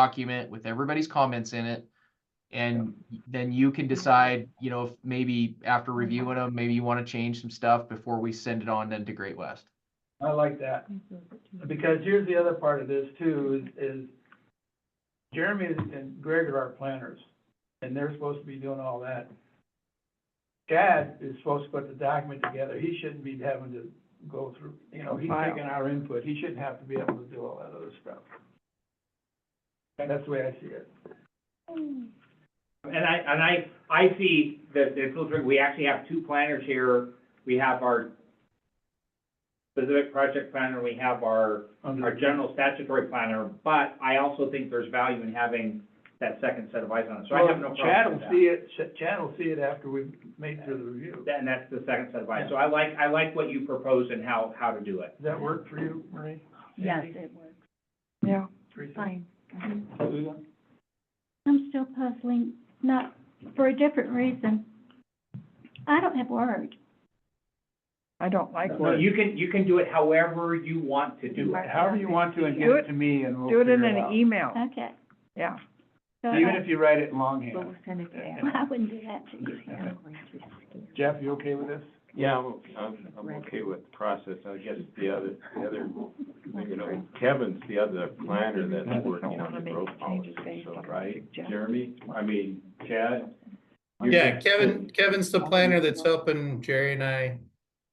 document with everybody's comments in it. And then you can decide, you know, if maybe after reviewing them, maybe you want to change some stuff before we send it on then to Great West. I like that, Mm-hmm. because here's the other part of this too, is, is Jeremy and Greg are our planners, and they're supposed to be doing all that. Chad is supposed to put the document together, he shouldn't be having to go through, you know, he's File. taking our input, he shouldn't have to be able to do all that other stuff. And that's the way I see it. And I, and I, I see that the filtering, we actually have two planners here. We have our specific project planner, we have our, our general statutory planner, but I also think there's value in having that second set of eyes on it, so I have no Well, Chad problem will with see it, Ch- Chad will see it after we've made through the review. that. And that's the second set of eyes, so I like, I like what you propose and how, how to do it. Does that work for you, Marie? Yes, it works, Yeah, Teresa? fine. Mhm. Susan? I'm still puzzling, not, for a different reason. I don't have words. I don't like No, So words. you can, you can do it however you want to do it. However you want to and give Do it it- to me and we'll Do it in figure an out. email, Okay. yeah. So Even I- if you write it longhand. send it well, I wouldn't do that to you. Jeff, you okay with this? Yeah, I'm, I'm, I'm okay with the process, I guess the other, the other, you know, Kevin's the other planner that's working on the growth policy, so, right? Jeremy, I mean, Chad? you're Yeah, just- Kevin, Kevin's the planner that's helping Jerry and I.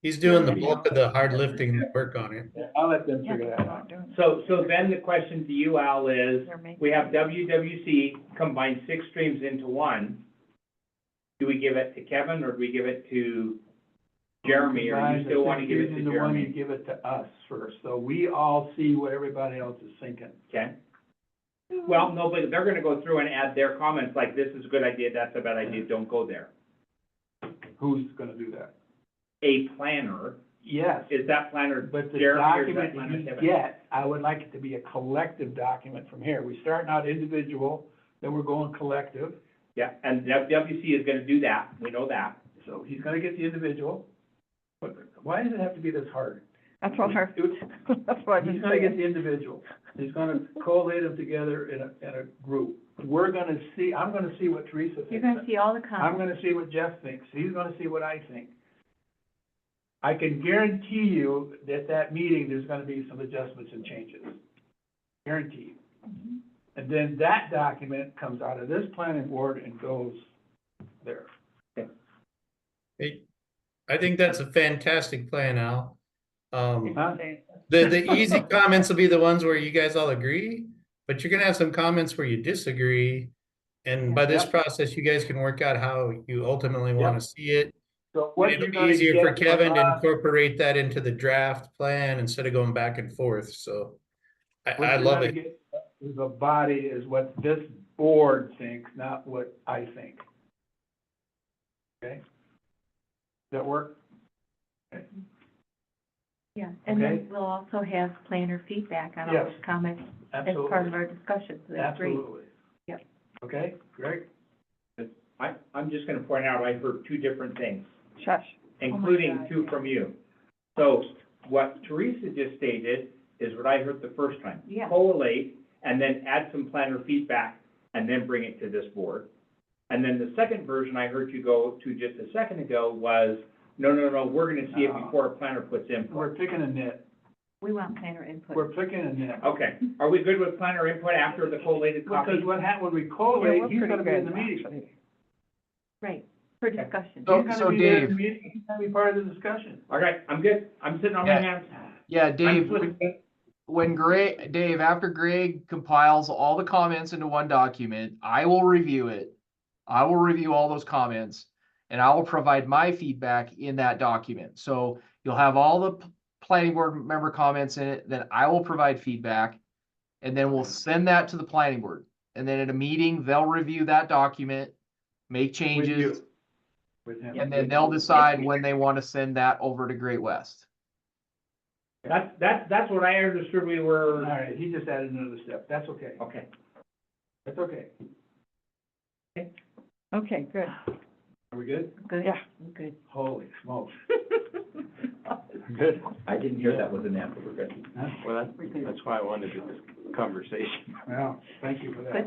He's doing the bulk of the hard lifting work on it. I'll let them Yeah, figure they're that out. not doing it. So, so then the question to you, Al, is, They're making- We have WWC combine six streams into one. Do we give it to Kevin or do we give it to Jeremy? Or Guys, you I still want to think give it using to the one you Jeremy? give it to us first, so we all see what everybody else is thinking. Okay. Well, no, but they're gonna go through and add their comments, like, this is a good idea, that's a bad idea, don't go there. Who's gonna do that? A planner, Yes, is that planner but the Jeremy or is that document planner that Kevin? you get, I would like it to be a collective document from here. We start out individual, then we're going collective. Yeah, and WWC is gonna do that, we know that. So he's gonna get the individual. But why does it have to be this hard? That's what our, It would- that's what I've He's been gonna get saying. the individual, he's gonna collate them together in a, in a group. We're gonna see, I'm gonna see what Teresa thinks. see all the I'm gonna see what Jeff thinks, he's gonna see what I think. I can guarantee you that that meeting, there's gonna be some adjustments and changes. Guaranteed. Mm-hmm. And then that document comes out of this planning board and goes there. Hey, I think that's a fantastic plan, Al. Um, Huh? the, the easy comments will be the ones where you guys all agree, but you're gonna have some comments where you disagree. And by this Yep. process, you guys can work out how you ultimately wanna see it. So what It'll you're be gonna easier for get from Kevin to us- incorporate that into the draft plan instead of going back and forth, so. I, What I you're love gonna it. get As a body is what this board thinks, not what I think. Okay? Does that work? Yeah, and Okay. then we'll also have planner feedback on all Yes. those comments as part of Absolutely. our discussion, so that's great. Absolutely. Yep. Okay, Greg? I, I'm just gonna point out, I heard two different things. Shush. Oh including two from you. So what Teresa just stated is what I heard the first time. Yeah. Collate and then add some planner feedback and then bring it to this board. And then the second version I heard you go to just a second ago was, no, no, no, we're gonna see it No. before a planner puts input. We're picking a nit, We want planner input. we're picking a nit. Okay, are we good with planner input after the collated copy? Because what hap, when we Yeah, collate, we're Oh, he's pretty gonna be in the good, meeting. actually. Right, for discussion. So- He's gonna be there in the meeting, he's gonna be part of the discussion. Okay, I'm good, I'm sitting on Yeah. my hands. Yeah, I'm Dave, good. when- when Greg, Dave, after Greg compiles all the comments into one document, I will review it. I will review all those comments and I will provide my feedback in that document. So you'll have all the p- planning board member comments in it, then I will provide feedback. And then we'll send that to the planning board. And then at a meeting, they'll review that document, make With you. changes, With him. and then they'll decide when they want to send that over to Great West. That's, that's, that's what I understood we All were, right, he just added another step, that's okay, okay. that's okay. Okay, good. Are we good? Good, Yeah. good. Holy smokes. Good. I didn't hear that was an answer, we're good. Huh? Well, that- that's why I wanted to just conversation. Yeah, thank you for that.